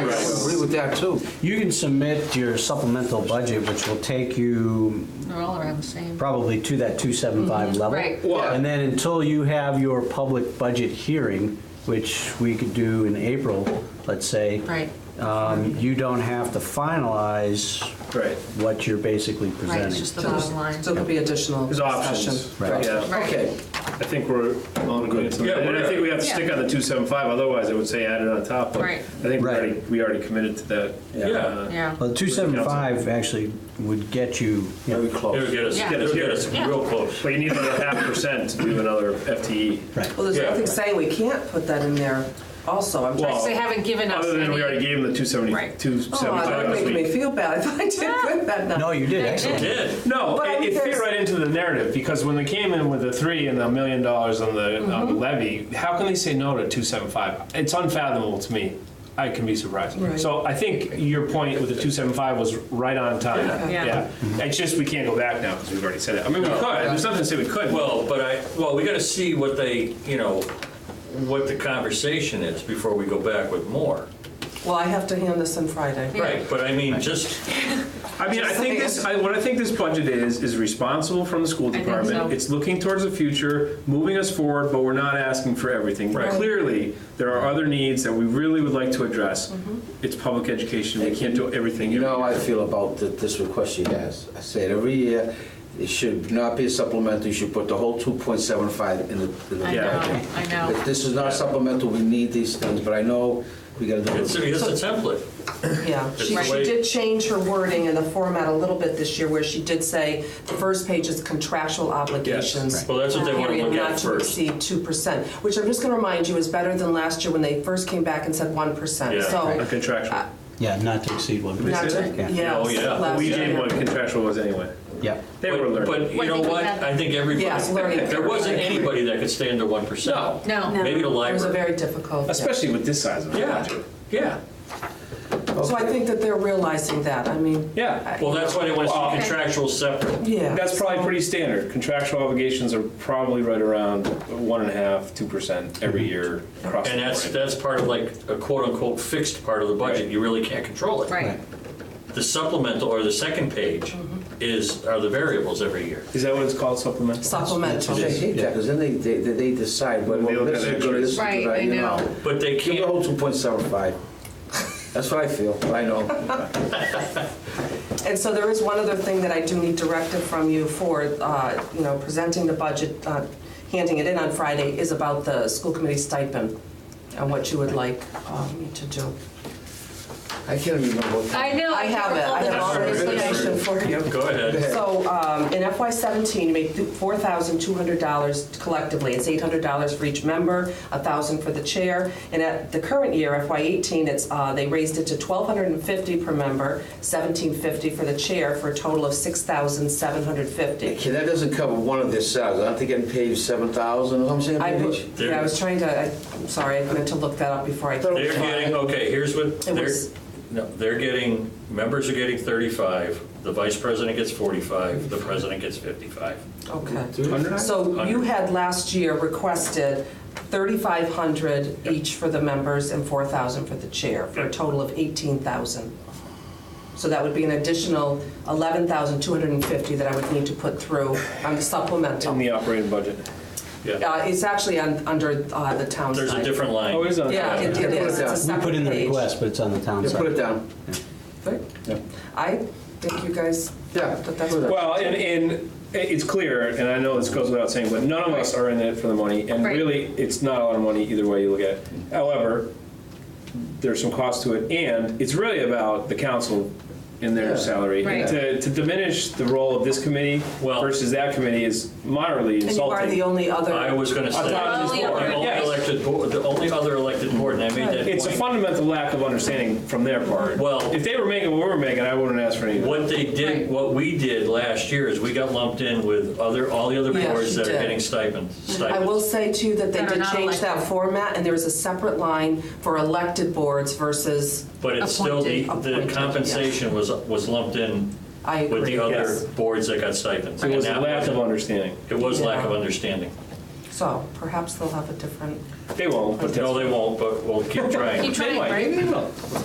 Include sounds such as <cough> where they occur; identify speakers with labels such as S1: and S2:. S1: Agree with that too.
S2: You can submit your supplemental budget, which will take you
S3: They're all around the same.
S2: probably to that 275 level.
S3: Mm-hmm. right.
S1: Well-
S2: And then until you have your public budget hearing, which we could do in April, let's say.
S3: Right.
S2: um, You don't have to finalize
S1: Right.
S2: what you're basically
S3: Right, it's just
S2: presenting.
S3: the bottom line.
S4: So there'll be additional
S1: There's
S4: discussion.
S1: options.
S2: Right.
S1: Yeah.
S3: Right.
S1: Okay.
S5: I think we're on good.
S1: Yeah,
S5: And I think we have to
S3: yeah.
S5: stick on the 275, otherwise I would say add it on top. but
S3: Right.
S5: I think we
S2: Right.
S5: already, we already committed to that.
S1: Yeah.
S5: Uh,
S3: Yeah.
S2: Well, 275 actually would get you, you
S1: Are
S2: know,
S1: we
S6: It
S1: close?
S6: would get us,
S3: Yeah.
S6: it would get us
S3: Yeah.
S6: real close.
S5: But you need another half percent to do another E. FTE.
S4: Well, there's
S6: Yeah.
S4: nothing saying we can't put that in there also. I'm
S5: Well,
S4: trying,
S3: They haven't given us
S5: Other than we
S3: any-
S5: already gave them the 270,
S3: Right.
S4: oh,
S5: 275
S4: that
S5: last
S4: making
S5: week.
S4: me feel bad if I did put that down.
S2: no, you did, excellent.
S6: Did.
S5: No,
S4: But I
S5: it,
S4: mean,
S5: it fit
S4: there's-
S5: right into the narrative because when they came in with the three and the million dollars on the, on
S4: Mm-hmm.
S5: the levy, how can they say no to two seven five? It's unfathomable to me. I can be surprised.
S4: Right.
S5: So I think your point with the two seven five was right on time.
S3: Yeah.
S5: it's just we can't go back now because we've already said it. I mean, we could. There's nothing to say we could.
S6: Well, but I, well, we gotta see what they, you know, what the conversation is before we go back with more.
S4: Well, I have to hand this in Friday.
S6: Right, but I mean, just,
S5: I mean, I think this, I, what I think this budget is, is responsible from the school
S3: think so.
S5: department. It's looking towards the future, moving us forward, but we're not asking for everything.
S6: Right.
S5: Clearly, there are other needs that we really would like to address. It's public education, we can't do everything.
S1: You know how
S5: every
S1: I
S5: year.
S1: feel about th- this request she has. I said every year, it should not be a supplemental, you should put the whole 2.75 in the. in the-
S3: I know,
S5: Yeah.
S3: I know.
S1: If this is not supplemental, we need these things, but I know we gotta do
S6: it's,
S1: it.
S6: it's a template.
S4: Yeah, she,
S6: the
S4: she
S6: way-
S4: did change her wording and the format a little bit this year, where she did say the first page is contractual obligations.
S6: Well, that's what they wanna
S4: period,
S6: look at first.
S4: Not to exceed two percent, which I'm just gonna remind you is better than last year when they first came back and said one percent,
S6: Yeah,
S4: so.
S5: A contractual.
S2: Yeah, not to exceed 1%.
S4: Not
S5: say
S4: to,
S5: that?
S4: yes,
S6: Oh, yeah.
S4: last
S5: We
S4: year.
S5: did what contractual was anyway.
S2: Yeah.
S5: They
S6: But-
S5: were learning.
S6: But you
S3: I
S6: know
S3: think we
S6: what?
S3: had-
S6: I think everybody,
S4: Yes, learning
S6: there wasn't
S4: curve.
S6: anybody that could stay under 1%.
S3: No. No.
S6: Maybe the
S4: It was a
S6: library.
S4: very difficult.
S5: Especially with this size of a
S6: Yeah,
S5: budget.
S6: yeah.
S4: So I think that they're realizing that, I mean.
S5: Yeah.
S6: Well, that's why they want to
S5: Okay.
S6: see contractual separate.
S4: Yeah.
S5: That's probably pretty standard. Contractual obligations are probably right around one and a half, two percent every year across the
S6: And that's,
S5: board.
S6: that's part of like a quote-unquote fixed part of the budget.
S5: Right.
S6: You really can't control it.
S3: Right.
S6: The supplemental or the second page is, are the variables every year.
S5: Is that what it's called, supplemental?
S4: Supplemental.
S1: I hate that, because then they, they, they decide, well,
S5: They look
S1: this
S5: at
S1: is good, this is good,
S3: Right,
S1: I-
S3: I
S1: you
S3: know.
S1: know.
S6: But they
S1: Give the
S6: can't,
S1: whole 2.75. That's what I feel, I know.
S4: And so there is one other thing that I do need directive from you for, uh, you know, presenting the budget, uh, handing it in on Friday, is about the school committee stipend and what you would like um, me to do.
S1: I can't even remember what.
S3: I know.
S4: I have it, I have all the information for you.
S6: go ahead.
S4: So um, in FY '17, you make $4,200 collectively. It's $800 for each member, $1,000 for the chair. And at the current year, FY '18, it's, uh, they raised it to $1,250 per member, $1,750 for the chair, for a total of $6,750.
S1: Okay, that doesn't cover one of their salaries, aren't they getting paid 7,000 or something?
S4: I,
S1: Paige?
S4: put- yeah, I was trying to, I- I'm sorry, I meant to look that up before I.
S6: They're getting, okay, here's what,
S4: It
S6: they're,
S4: was-
S6: no, they're getting, members are getting 35, the vice president gets 45, the president gets 55.
S4: Okay.
S5: Hundred?
S4: So you had last year requested 3,500 each for the members and 4,000 for the chair, for a total of 18,000. So that would be an additional 11,250 that I would need to put through on the
S5: In
S4: supplemental.
S5: the operating budget.
S6: Yeah,
S4: Uh, It's actually on, under uh, the town
S6: there's a
S4: side.
S6: different line.
S5: Oh, it is on.
S4: Yeah, it it is, it's a
S2: We put
S4: separate
S2: in the
S4: page.
S2: request, but it's on the town
S1: Yeah,
S2: side.
S1: put it down.
S4: Right.
S1: Yeah.
S4: I think you guys,
S1: Yeah.
S4: but that's.
S1: Well,
S5: Well, and, and it's clear, and I know this goes without saying, but none of us are in it for the money, and
S3: Right.
S5: really, it's not a lot of money either way you look at it. However, there's some cost to it, and it's really about the council and
S1: Yeah.
S5: their salary.
S3: Right.
S5: To, to diminish the role of this committee
S6: Well-
S5: versus that committee is moderately
S4: And you
S5: insulting.
S4: are the only other.
S6: I was gonna say,
S5: I thought
S6: the
S5: it was
S6: only
S5: more. Yes.
S6: elected board, the only other elected board, and I made that
S5: It's a
S6: point.
S5: fundamental lack of understanding from their part.
S6: Well-
S5: If they were making what we were making, I wouldn't ask for anything.
S6: What they
S3: Right.
S6: did, what we did last year is we got lumped in with other, all the other
S4: Yeah,
S6: boards
S4: she
S6: that are
S4: did.
S6: getting stipends,
S4: I will
S6: stipends.
S4: say too that they
S3: That are
S4: did
S3: not
S4: change that
S3: elected.
S4: format, and there was a separate line for elected boards versus,
S6: But it's still, the,
S4: Appointed.
S6: the
S4: Appointed,
S6: compensation was, was lumped in
S4: I
S6: with
S4: agree,
S6: the
S4: yes.
S6: other boards that got stipends.
S5: It
S6: And
S5: was a
S6: that
S5: lack of
S6: wasn't-
S5: understanding.
S6: It was lack of
S4: Yeah.
S6: understanding.
S4: So perhaps they'll have a different.
S5: They won't, but
S4: <laughs>
S5: that's.
S6: No, they won't, but we'll keep trying.
S3: Keep trying,
S5: They might.
S3: right?
S5: They will.